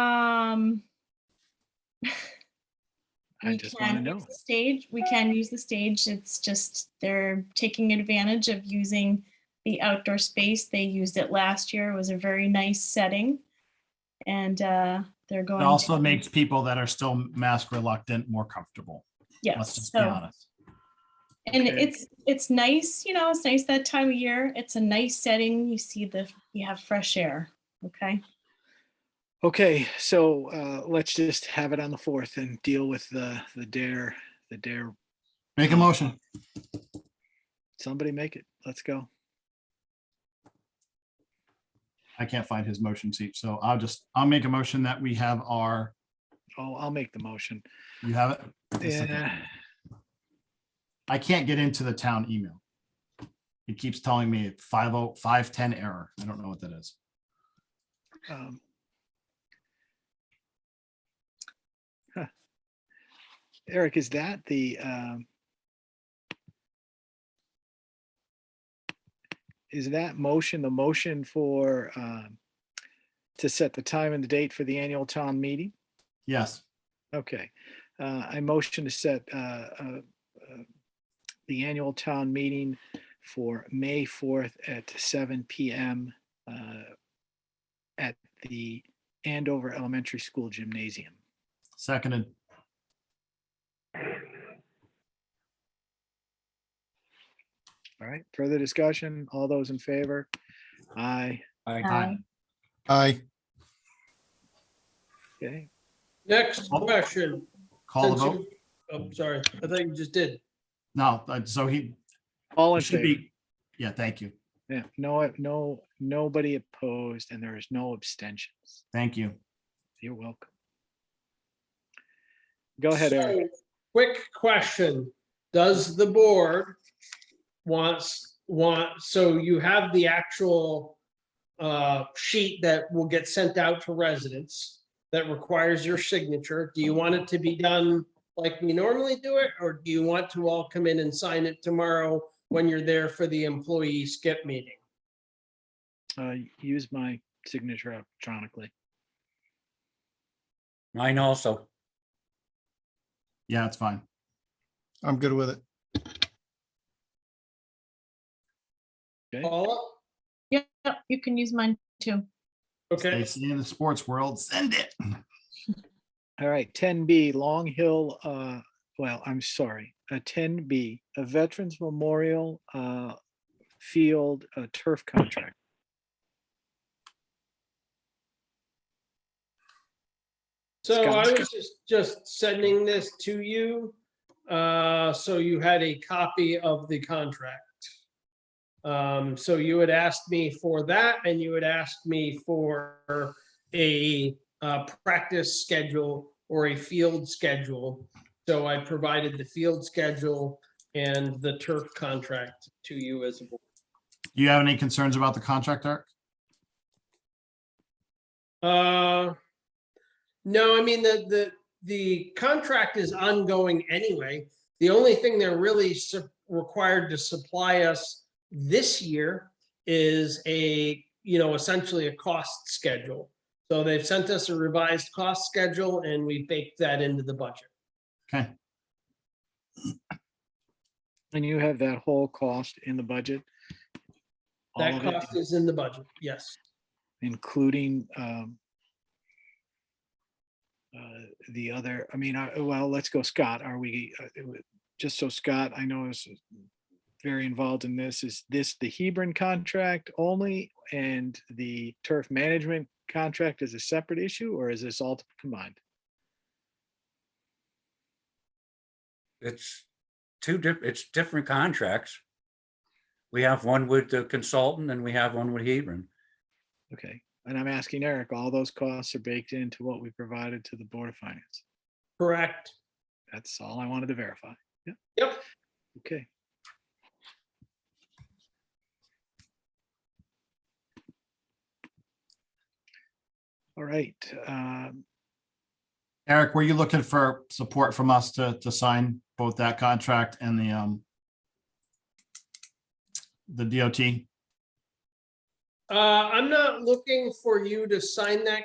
um, I we just wanna can know. use the Stage, we can use the stage. It's just they're taking advantage of using the outdoor space. They used it last year. It was a very nice setting. And uh, they're It going. to- also makes people that are still mask reluctant more comfortable. Let's Yes, just be so, honest. and Okay. it's, it's nice, you know, it's nice that time of year. It's a nice setting. You see the, you have fresh air, okay? Okay, so uh, let's just have it on the fourth and deal with the, the dare, the dare. Make a motion. Somebody make it. Let's go. I can't find his motion seat, so I'll just, I'll make a motion that we have our, Oh, I'll make the motion. you have it? Just a second. Yeah, I can't get into the town email. It keeps telling me five oh, five ten error. I don't know what that is. um, huh. Eric, is that the um, is that motion the motion for um, to set the time and the date for the annual town meeting? Yes, Okay, uh, I motion to set, uh, uh, uh, the annual town meeting for May fourth at seven PM, uh, at the Andover Elementary School Gymnasium. seconded. All right, further discussion? All those in favor? Aye, Aye. Aye. okay, Next Oh. question. Call the Since vote. you- I'm sorry, I thought you just did. No, uh, so he all it in should favor? be, yeah, thank you. Yeah, no, no, nobody opposed and there is no abstentions. Thank you. You're welcome. Go ahead, Eric. So, Quick question. Does the board wants, want, so you have the actual uh, sheet that will get sent out to residents that requires your signature? Do you want it to be done like we normally do it? Or do you want to all come in and sign it tomorrow when you're there for the employee skip meeting? Uh, use my signature electronically. Mine also. Yeah, it's fine. I'm good with it. Paula? Yep, oh, you can use mine too. Okay. They see in the sports world, send it. All right, ten B, Long Hill, uh, well, I'm sorry, uh, ten B, a Veterans Memorial, uh, field, uh, turf contract. So I Scott. was just, just sending this to you, uh, so you had a copy of the contract. Um, so you had asked me for that and you had asked me for a, uh, practice schedule or a field schedule. So I provided the field schedule and the turf contract to you as well. Do you have any concerns about the contract, Eric? Uh, no, I mean, the, the, the contract is ongoing anyway. The only thing they're really su- required to supply us this year is a, you know, essentially a cost schedule. So they've sent us a revised cost schedule and we baked that into the budget. Okay, And you have that whole cost in the budget. all That of it, cost is in the budget, yes. Including, um, uh, the other, I mean, uh, well, let's go Scott, are we, uh, it wa- just so Scott, I know is very involved in this, is this the Hebron contract only and the turf management contract is a separate issue, or is this all combined? It's two diff, it's different contracts. We have one with the consultant and we have one with Hebron. Okay, and I'm asking Eric, all those costs are baked into what we provided to the Board of Finance? Correct. That's all I wanted to verify. Yeah. Yep. Okay. All right, um, Eric, were you looking for support from us to, to sign both that contract and the, um, the DOT? Uh, I'm not looking for you to sign that